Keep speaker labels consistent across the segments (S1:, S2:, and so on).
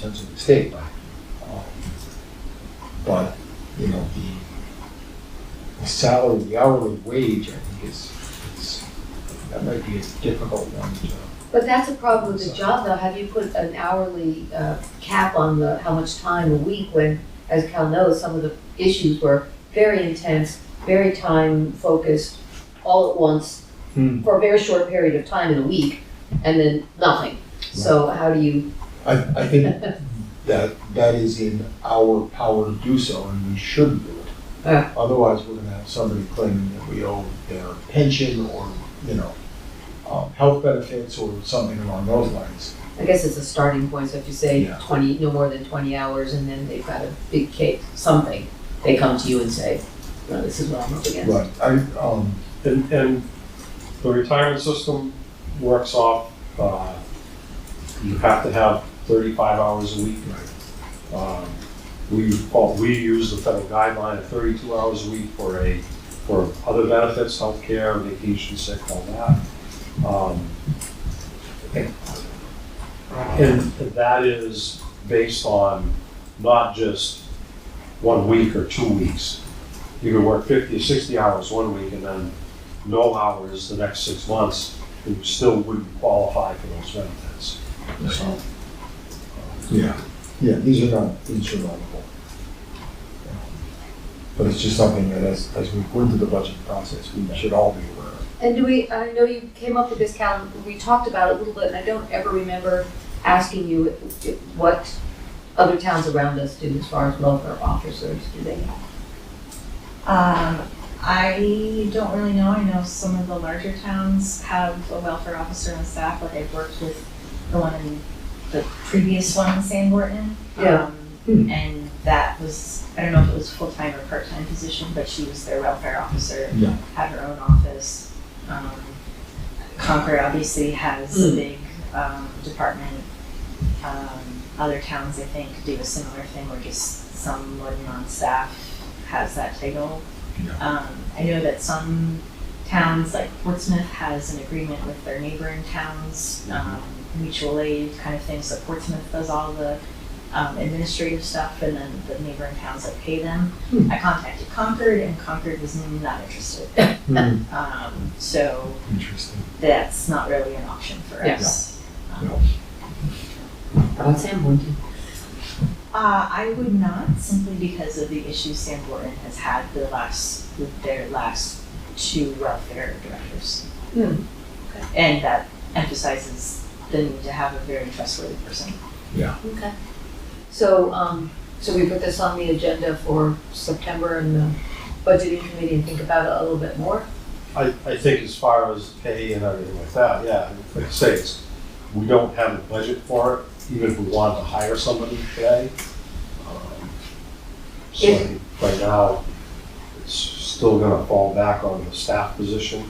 S1: terms of the state. Um, But, you know, the- the salary, the hourly wage, I think is, is, that might be a difficult one to.
S2: But that's a problem with the job though, have you put an hourly, uh, cap on the, how much time a week when, as Cal knows, some of the issues were very intense, very time focused, all at once, for a very short period of time in a week, and then nothing. So how do you,
S1: I, I think that, that is in our power to do so, and we should do it.
S2: Yeah.
S1: Otherwise, we're gonna have somebody claiming that we owe their pension or, you know, um, health benefits or something along those lines.
S2: I guess it's a starting point, so if you say
S1: Yeah.
S2: twenty, no more than twenty hours, and then they've got a big cake, something, they come to you and say, no, this is what I'm up against.
S1: But I, um,
S3: And, and the retirement system works off, uh, you have to have thirty-five hours a week. Um, We, well, we use the federal guideline of thirty-two hours a week for a, for other benefits, healthcare, vacation, sick, all that. Um, And that is based on not just one week or two weeks. You can work fifty or sixty hours one week and then no hours the next six months, and you still wouldn't qualify for those benefits. So,
S1: Yeah, yeah, these are not insurmountable. But it's just something that as, as we go into the budget process, we should all be aware of.
S2: And do we, I know you came up with this, Cal, we talked about it a little bit, and I don't ever remember asking you what other towns around us do as far as welfare officers, do they?
S4: Um, I don't really know. I know some of the larger towns have a welfare officer on staff, like I've worked with the one in the previous one in Sanborn.
S2: Yeah.
S4: Um, and that was, I don't know if it was full-time or part-time position, but she was their welfare officer.
S1: Yeah.
S4: Had her own office. Um, Concord obviously has a
S2: Mm.
S4: big, um, department. Um, other towns, I think, do a similar thing where just someone on staff has that title. Um, I know that some towns, like Portsmouth, has an agreement with their neighboring towns,
S2: Mm-hmm.
S4: um, mutual aid kind of thing, so Portsmouth does all the, um, administrative stuff, and then the neighboring towns that pay them.
S2: Hmm.
S4: I contacted Concord, and Concord was not interested,
S2: Hmm.
S4: um, so
S1: Hmm. Interesting.
S4: that's not really an option for
S2: Yeah.
S4: us. Um,
S1: No.
S2: About Sanborn.
S4: Uh, I would not, simply because of the issues Sam Borton has had the last, with their last two welfare directors.
S2: Hmm.
S4: And that emphasizes the need to have a very trustworthy person.
S2: Okay. So, um, so we put this on the agenda for September and the budgeting committee and think about it a little bit more?
S3: I, I think as far as pay and everything like that, yeah, like I say, it's, we don't have a budget for it, even if we wanted to hire somebody today. Um, So I
S2: If-
S3: think right now, it's still gonna fall back on the staff position.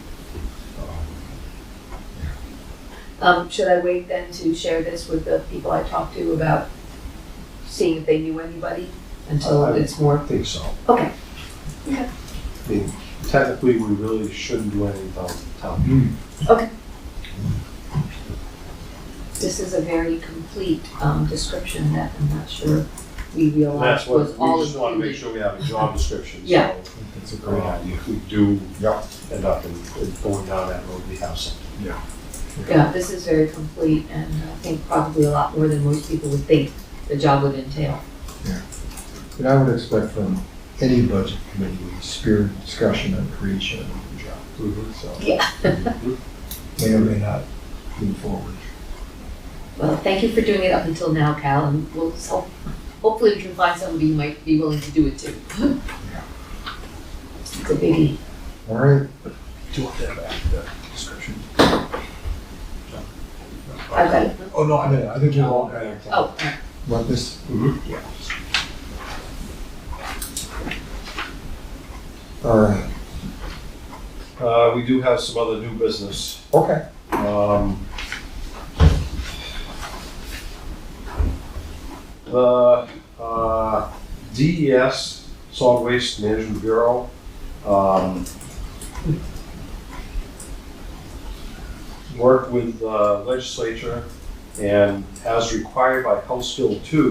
S3: Um,
S2: Um, should I wait then to share this with the people I talked to about seeing if they knew anybody until
S3: I-
S2: it's more?
S3: I think so.
S2: Okay. Okay.
S3: I mean, technically, we really shouldn't do anything without town meeting.
S1: Hmm.
S2: This is a very complete um, description that I'm not sure we
S3: And
S2: realized
S3: That's what,
S2: was all
S3: we just wanna make
S2: included.
S3: sure we have a job description,
S2: Yeah.
S3: so,
S1: I think That's a great
S3: uh,
S1: idea.
S3: if we do
S1: Yeah.
S3: end up in, in going down that road, we have something.
S2: Yeah, this is very complete and uh, I think probably a lot more than most people would think the job would entail.
S1: And I would expect from any budget committee, a spirited discussion and creation of a new job. So
S2: Yeah.
S1: may or may not move forward.
S2: Well, thank you for doing it up until now, Cal, and we'll, so hopefully we can find somebody who might be willing to do it too. It's a biggie.
S1: All right,
S5: Do you want that back, the description?
S2: I've got it.
S5: Oh, no, I mean, I think you all.
S2: Oh,
S1: want this? All right,
S3: Uh, we do have some other new business.
S1: okay.
S3: Um, the uh, DES, Solid Waste Management Bureau, um, worked with the legislature And as required by House Bill two,